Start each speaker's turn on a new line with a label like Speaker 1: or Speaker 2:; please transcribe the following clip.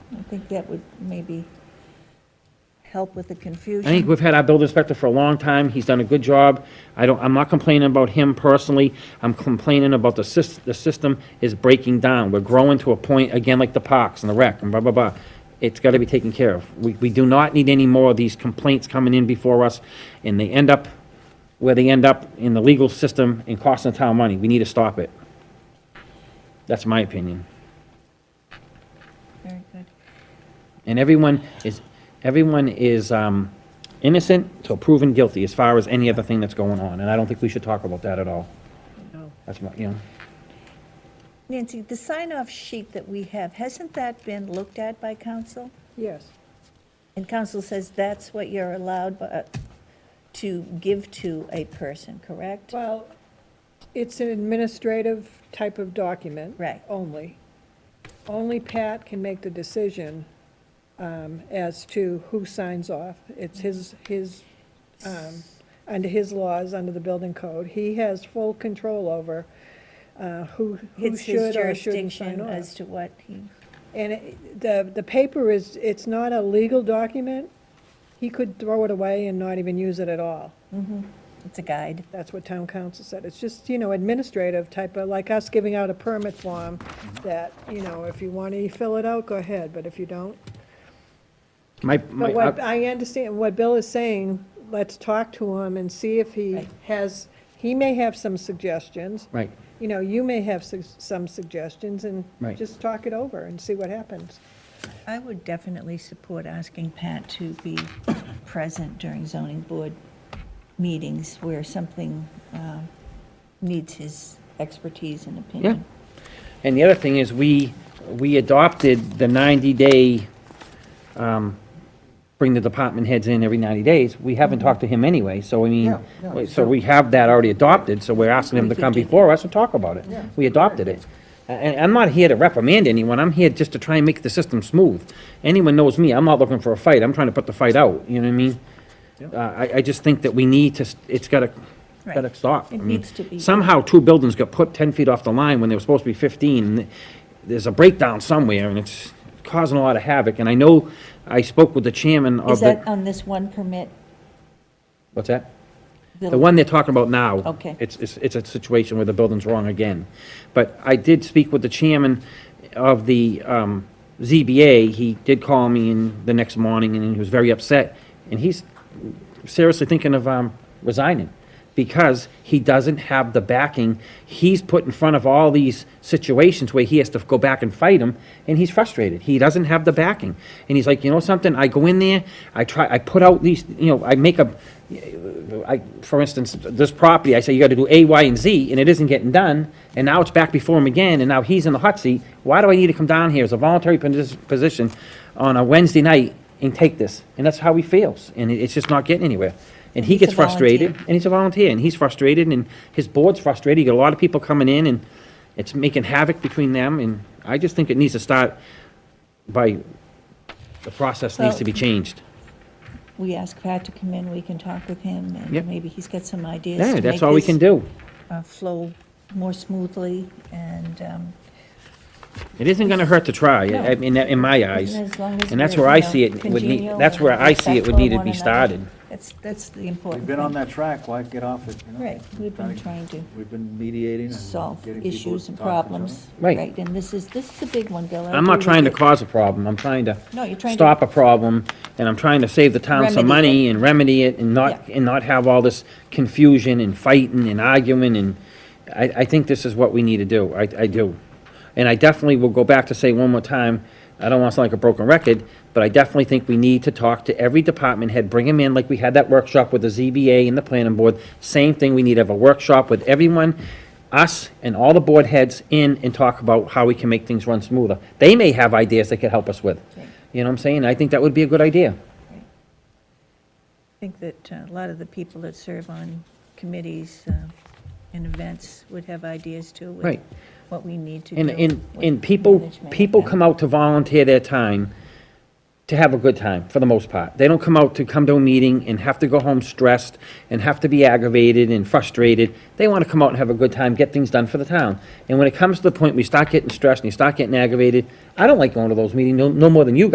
Speaker 1: think that would maybe help with the
Speaker 2: I think
Speaker 1: confusion.
Speaker 2: we've had our building inspector for a long time, he's done a good job. I don't, I'm not complaining about him personally, I'm complaining about the sys, the system is breaking down. We're growing to a point, again, like the parks and the rec and blah, blah, blah. It's gotta be taken care of. We, we do not need any more of these complaints coming in before us, and they end up where they end up in the legal system and costing the town money. We need to stop it. That's my opinion.
Speaker 1: Very good.
Speaker 2: And everyone is, everyone is um, innocent till proven guilty as far as any other thing that's going on. And I don't think we should talk about that at all. That's my, you know,
Speaker 1: Nancy, the sign-off sheet that we have, hasn't that been looked at by council?
Speaker 3: Yes.
Speaker 1: And council says that's what you're allowed bu- uh, to give to a person, correct?
Speaker 3: Well, it's an administrative type of document.
Speaker 1: Right.
Speaker 3: Only. Only Pat can make the decision um, as to who signs off. It's his, his, um, under his laws, under the building code. He has full control over uh, who, who
Speaker 1: It's his
Speaker 3: should or shouldn't
Speaker 1: jurisdiction
Speaker 3: sign
Speaker 1: as
Speaker 3: off.
Speaker 1: to what he,
Speaker 3: And it- the, the paper is, it's not a legal document. He could throw it away and not even use it at all.
Speaker 1: it's a guide.
Speaker 3: That's what town council said. It's just, you know, administrative type of, like us giving out a permit form that, you know, if you want to fill it out, go ahead, but if you don't.
Speaker 2: my,
Speaker 3: But
Speaker 2: my,
Speaker 3: what,
Speaker 2: uh,
Speaker 3: I understand what Bill is saying, let's talk to him and see if he
Speaker 1: Right.
Speaker 3: has, he may have some suggestions.
Speaker 2: right.
Speaker 3: You know, you may have su- some suggestions and
Speaker 2: Right.
Speaker 3: just talk it over and see what happens.
Speaker 1: I would definitely support asking Pat to be present during zoning board meetings where something um, needs his expertise and opinion.
Speaker 2: And the other thing is, we, we adopted the 90-day, um, bring the department heads in every 90 days. We haven't talked to him anyway, so I
Speaker 4: Mm-hmm. Yeah,
Speaker 2: mean,
Speaker 4: yeah,
Speaker 2: wait, so
Speaker 4: sure.
Speaker 2: we have that already adopted, so we're asking him
Speaker 1: We
Speaker 2: to
Speaker 1: could
Speaker 2: come
Speaker 1: do that.
Speaker 2: before us and talk about it.
Speaker 4: Yeah.
Speaker 2: We adopted it. A- And I'm not here to reprimand anyone, I'm here just to try and make the system smooth. Anyone knows me, I'm not looking for a fight, I'm trying to put the fight out, you know what I mean? Uh, I, I just think that we need to, s- it's gotta,
Speaker 1: Right.
Speaker 2: gotta stop.
Speaker 1: It
Speaker 2: I mean,
Speaker 1: needs to be-
Speaker 2: Somehow, two buildings got put 10 feet off the line when they were supposed to be 15. and There's a breakdown somewhere, and it's causing a lot of havoc. And I know, I spoke with the chairman
Speaker 1: Is
Speaker 2: of
Speaker 1: that
Speaker 2: Uh,
Speaker 1: uh,
Speaker 2: the...
Speaker 1: on this one permit?
Speaker 2: What's that? The one they're talking about now.
Speaker 1: Okay.
Speaker 2: It's, it's, it's a situation where the building's wrong again. But I did speak with the chairman of the, um, ZBA. He did call me in the next morning and he was very upset. And he's seriously thinking of, um, resigning because he doesn't have the backing. He's put in front of all these situations where he has to go back and fight them, and he's frustrated. He doesn't have the backing. And he's like, you know something, I go in there, I try, I put out these, you know, I make a, I, for instance, this property, I say you gotta do A, Y, and Z, and it isn't getting done, and now it's back before him again, and now he's in the hot seat. Why do I need to come down here as a voluntary posi- position on a Wednesday night and take this? And that's how he feels, and it- it's just not getting anywhere. And he
Speaker 1: He's a
Speaker 2: gets frustrated,
Speaker 1: volunteer.
Speaker 2: and he's a volunteer, and he's frustrated, and his board's frustrated, you got a lot of people coming in, and it's making havoc between them, and I just think it needs to start by, the process needs to be changed.
Speaker 1: We ask Pat to come in, we can talk with him,
Speaker 2: Yep.
Speaker 1: and maybe he's got some ideas to
Speaker 2: Yeah,
Speaker 1: make
Speaker 2: that's all we
Speaker 1: this,
Speaker 2: can do.
Speaker 1: uh, flow more smoothly, and um,
Speaker 2: It isn't gonna hurt to try, I I mean, in my eyes.
Speaker 1: as long as
Speaker 2: And that's
Speaker 1: we're,
Speaker 2: where I
Speaker 1: you know,
Speaker 2: see it would need,
Speaker 1: congenial
Speaker 2: that's where
Speaker 1: and
Speaker 2: I see it would need to be
Speaker 1: respectful of one
Speaker 2: started.
Speaker 1: another. That's, that's the important
Speaker 4: We've
Speaker 1: thing.
Speaker 4: been on that track, why get off it? you know?
Speaker 1: Right, we've been trying to
Speaker 4: We've been mediating and
Speaker 1: solve
Speaker 4: getting people
Speaker 1: issues and
Speaker 4: to talk to each
Speaker 1: problems.
Speaker 2: Right.
Speaker 1: And this is, this is a big one, Bill. I
Speaker 2: I'm not
Speaker 1: agree
Speaker 2: trying to
Speaker 1: with you.
Speaker 2: cause a problem, I'm trying to
Speaker 1: No, you're trying to-
Speaker 2: stop a problem, and I'm trying to save the town
Speaker 1: Remedy it.
Speaker 2: some money and remedy it, and not,
Speaker 1: Yeah.
Speaker 2: and not have all this confusion and fighting and arguing, and I, I think this is what we need to do, I, I do. And I definitely will go back to say one more time, I don't want to sound like a broken record, but I definitely think we need to talk to every department head, bring them in, like we had that workshop with the ZBA and the planning board. Same thing, we need to have a workshop with everyone, us and all the board heads in and talk about how we can make things run smoother. They may have ideas they could help us with.
Speaker 1: Right.
Speaker 2: You know what I'm saying? I think that would be a good idea.
Speaker 1: I think that uh, a lot of the people that serve on committees uh, and events would have ideas too. with
Speaker 2: Right.
Speaker 1: What we need to do.
Speaker 2: And, and,
Speaker 1: with
Speaker 2: and people,
Speaker 1: management.
Speaker 2: people come out to volunteer their time to have a good time, for the most part. They don't come out to come to a meeting and have to go home stressed and have to be aggravated and frustrated. They want to come out and have a good time, get things done for the town. And when it comes to the point we start getting stressed and you start getting aggravated, I don't like going to those meetings, no, no more than you guys.